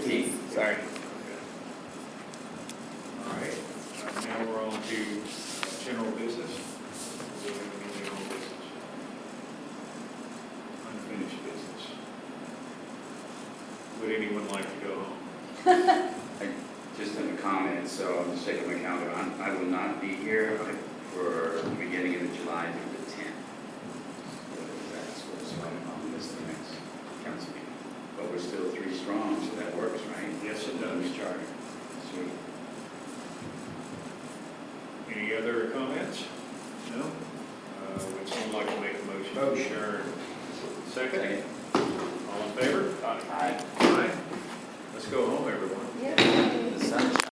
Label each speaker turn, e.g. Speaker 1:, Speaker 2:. Speaker 1: Sorry. All right, uh, now we're on to general business. Do we have any general business? Unfinished business. Would anyone like to go home?
Speaker 2: Just in the comments, so I'm just checking my calendar, I'm- I will not be here like, for the beginning of the July through the 10th. That's what, so I'm on this the next council meeting. But we're still three strong, so that works, right?
Speaker 1: Yes, it
Speaker 2: Under
Speaker 1: does.
Speaker 2: the charter. Sweet.
Speaker 1: Any other comments? No? Uh, Would someone like to make a motion? Motion. Second?
Speaker 2: Second.
Speaker 1: All in favor? Aye.
Speaker 2: Aye.
Speaker 1: Aye. Let's go home, everyone.
Speaker 3: Yeah.
Speaker 2: The sunshine.